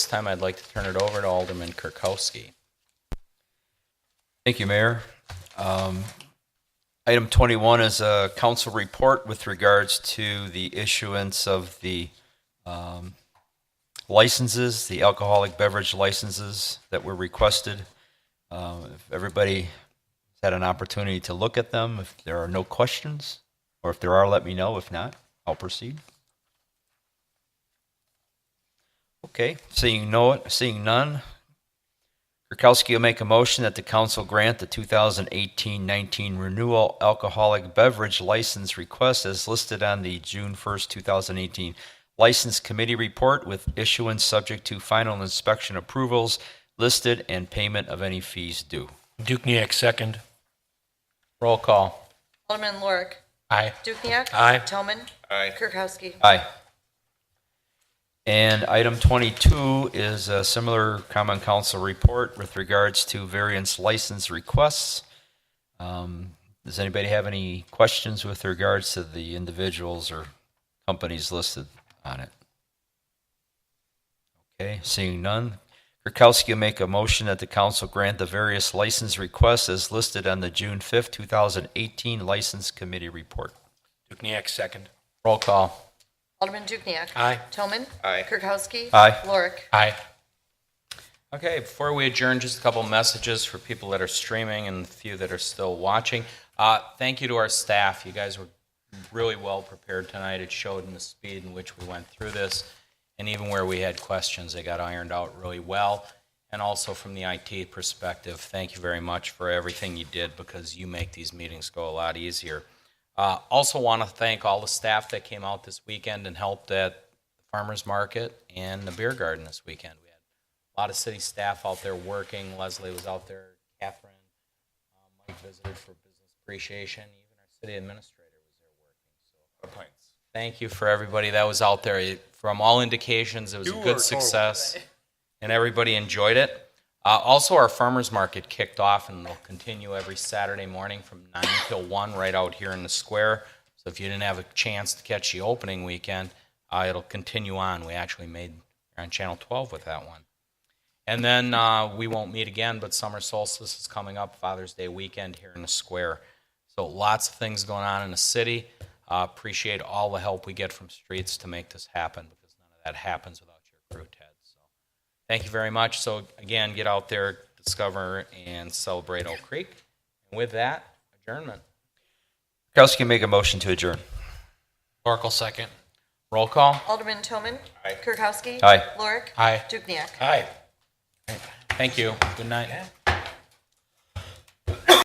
time, I'd like to turn it over to Alderman Kirkowski. Thank you, Mayor. Um, Item 21 is a council report with regards to the issuance of the um, licenses, the alcoholic beverage licenses that were requested. Um, If everybody has had an opportunity to look at them, if there are no questions, or if there are, let me know. If not, I'll proceed. Okay, seeing no, seeing none, Kirkowski will make a motion that the council grant the 2018-19 renewal alcoholic beverage license request as listed on the June 1st, 2018 License Committee Report with issuance subject to final inspection approvals listed and payment of any fees due. Dukenyak, second. Roll call. Alderman Lorik. Aye. Dukenyak. Aye. Toman. Aye. Kirkowski. Aye. And item 22 is a similar common council report with regards to variance license requests. Um, Does anybody have any questions with regards to the individuals or companies listed on it? Okay, seeing none. Kirkowski will make a motion that the council grant the various license requests as listed on the June 5th, 2018 License Committee Report. Dukenyak, second. Roll call. Alderman Dukenyak. Aye. Toman. Aye. Kirkowski. Aye. Lorik. Aye. Okay, before we adjourn, just a couple messages for people that are streaming and the few that are still watching. Uh, thank you to our staff. You guys were really well prepared tonight. It showed in the speed in which we went through this, and even where we had questions, they got ironed out really well. And also from the IT perspective, thank you very much for everything you did because you make these meetings go a lot easier. Uh, also, want to thank all the staff that came out this weekend and helped at the farmers market and the beer garden this weekend. We had a lot of city staff out there working. Leslie was out there, Catherine, um, Mike visited for business appreciation. Even our city administrator was there working. So, thank you for everybody that was out there. It- From all indications, it was a good success, and everybody enjoyed it. Uh, also, our farmers market kicked off, and will continue every Saturday morning from nine till one, right out here in the square. So, if you didn't have a chance to catch the opening weekend, uh, it'll continue on. We actually made we're on Channel 12 with that one. And then uh, we won't meet again, but summer solstice is coming up, Father's Day weekend here in the square. So lots of things going on in the city. Uh, appreciate all the help we get from streets to make this happen because none of that happens without your crew, Ted. So thank you very much. So again, get out there, discover and celebrate Oak Creek. And with that, adjournment. Kirkowski make a motion to adjourn. Oracle, second. Roll call. Alderman Toman. Aye. Kirkowski. Aye. Lorik. Aye. Dukenyak. Aye. Thank you. Good night.